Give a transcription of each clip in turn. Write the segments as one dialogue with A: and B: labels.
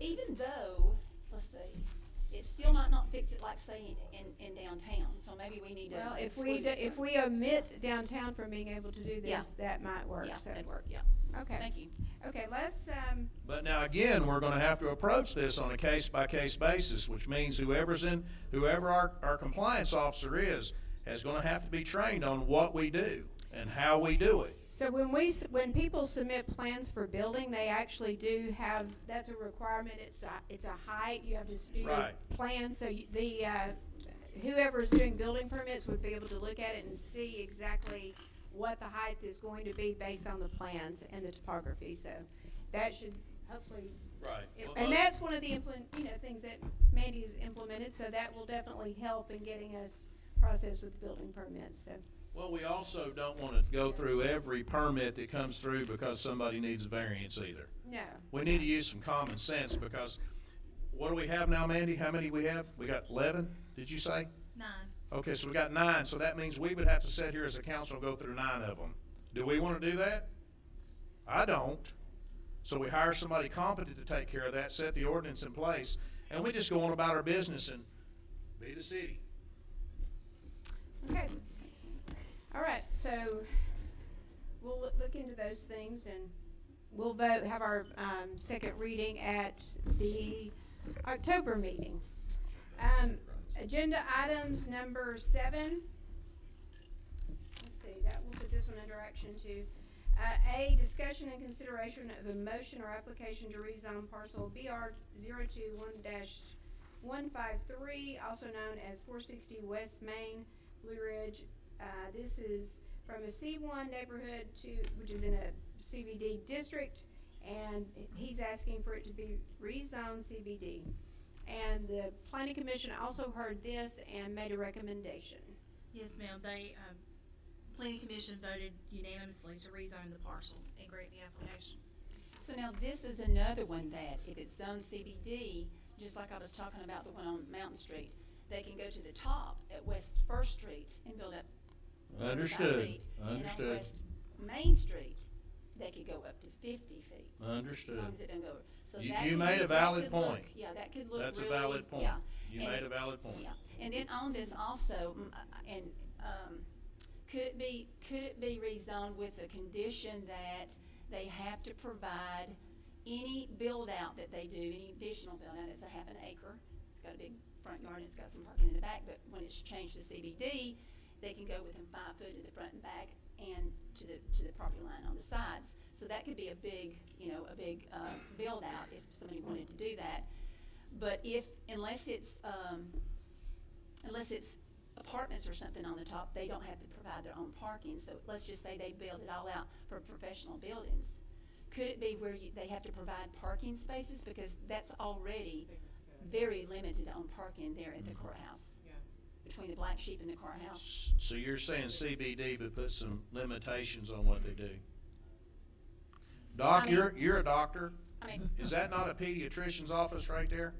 A: even though, let's see, it still might not fix it like say in, in, in downtown, so maybe we need to.
B: Well, if we,
A: exclude
B: do-
A: it.
B: if we omit downtown from being able to do
A: Yeah.
B: this, that might work,
A: Yeah,
B: so.
A: that'd work, yeah.
B: Okay,
A: Thank you.
B: okay, let's, um,
C: But now again, we're gonna have to approach this on a case-by-case basis, which means whoever's in, whoever our, our compliance officer is, is gonna have to be trained on what we do and how we do it.
B: So when we, s- when people submit plans for building, they actually do have, that's a requirement, it's a, it's a height, you have to s- do your
C: Right.
B: plan, so you- the, uh, whoever's doing building permits would be able to look at it and see exactly what the height is going to be based on the plans and the topography, so that should hopefully,
C: Right.
B: it- and that's one of the implement, you know, things that Mandy has implemented, so that will definitely help in getting us processed with building permits, so.
C: Well, we also don't wanna go through every permit that comes through because somebody needs a variance either.
B: No,
C: We need to use some common sense because what do we have now, Mandy? How many we have? We got eleven, did you say?
D: Nine.
C: Okay, so we got nine, so that means we would have to sit here as a council and go through nine of them. Do we wanna do that? I don't. So we hire somebody competent to take care of that, set the ordinance in place, and we just go on about our business and be the city.
B: okay. All right, so we'll loo- look into those things and we'll vote, have our um, second reading at the October meeting. Um, Agenda items number seven. Let's see, that, we'll put this one under action two. Uh, A, discussion and consideration of a motion or application to rezone parcel BR 21 one five three, also known as four sixty West Main, Blue Ridge. Uh, this is from a C one neighborhood to, which is in a CBD district, and he's asking for it to be rezoned CBD. And the planning commission also heard this and made a recommendation.
D: Yes, ma'am. They, um, planning commission voted unanimously to rezone the parcel and grant the application.
A: So now this is another one that if it's zone CBD, just like I was talking about the one on Mountain Street, they can go to the top at West First Street and build up. 35
C: Understood,
A: feet, And on
C: understood,
A: West Main Street, they could go up to fifty feet. As
C: understood.
A: long as it don't go over. So
C: You-
A: that
C: you
A: could-
C: made a
A: that
C: valid
A: could look-
C: point.
A: Yeah, that could look really.
C: That's a valid point.
A: Yeah,
C: You
A: and
C: made
A: it-
C: a valid point.
A: yeah. And then on this also, mm, uh, and, um, could it be, could it be rezoned with the condition that they have to provide any build-out that they do, any additional build-out, it's a half an acre, it's got a big front yard, and it's got some parking in the back, but when it's changed to CBD, they can go within five foot of the front and back and to the, to the property line on the sides. So that could be a big, you know, a big, uh, build-out if somebody wanted to do that. But if, unless it's, um, unless it's apartments or something on the top, they don't have to provide their own parking, so let's just say they build it all out for professional buildings. Could it be where you, they have to provide parking spaces, because that's already very limited on parking there at the courthouse?
E: Yeah.
A: Between the black sheep and the courthouse,
C: S- So you're saying CBD would put some limitations on what they do? Doc,
A: I mean-
C: you're, you're a doctor.
A: I mean,
C: Is that not a pediatrician's office right there?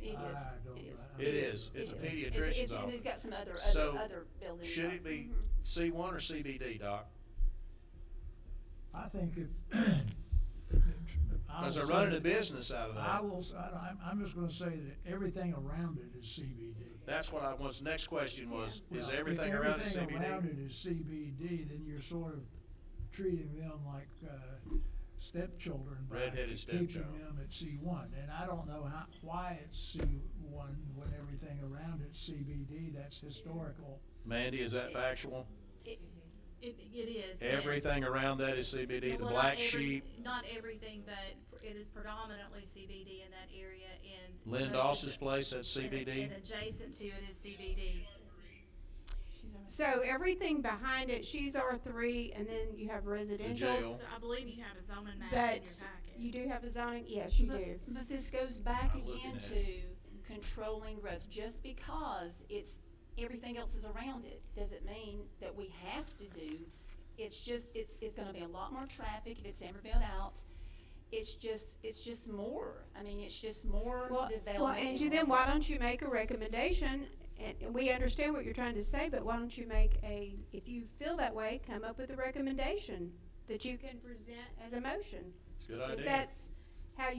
A: it is,
F: I don't
A: it is.
F: know.
C: It is. It's a
A: It is. It's-
C: pediatrician's
A: it's- And
C: office.
A: it's got some other,
C: So,
A: other, other buildings.
C: Should it be
A: Mhm.
C: C1 or CBD, Doc?
F: I think if. I
C: Because they're
F: will say
C: running a
F: that-
C: business out of
F: I
C: that.
F: will, s- I, am I'm just gonna say that everything around it is CBD.
C: That's what I was, next question was, is
F: Well,
C: everything around it
F: If everything around
C: CBD?
F: it is CBD, then you're sort of treating them like, uh, stepchildren. by
C: Redheaded stepchild.
F: Keeping them at C one, and I don't know how, why it's C one when everything around it's CBD, that's historical.
C: Mandy, is that factual?
D: It, it is. yes.
C: Everything around that is CBD, the
D: Well, not
C: black
D: every-
C: sheep.
D: Not everything, but it is predominantly CBD in that area and.
C: Lynn
D: most
C: Doss's
D: of
C: place, that's
D: the- and-
C: CBD.
D: And adjacent to it is CBD.
B: So everything behind it, she's R three, and then you have residential.
C: jail.
D: So I believe you have a zoning map in your
B: But you
D: packet.
B: do have a zoning, yes, you
A: But-
B: do.
A: But this goes back
C: I'm looking
A: again
C: at
A: to controlling growth, just because it's, everything else is around it, doesn't mean that we have to do. It's just, it's, it's gonna be a lot more traffic if it's ever built out, it's just, it's just more, I mean, it's just more
B: Well,
A: development.
B: well, Angie,
A: and
B: then
A: more-
B: why don't you make a recommendation? And and we understand what you're trying to say, but why don't you make a, if you feel that way, come up with a recommendation that you can present as a motion.
C: It's a good
B: If
C: idea.
B: that's,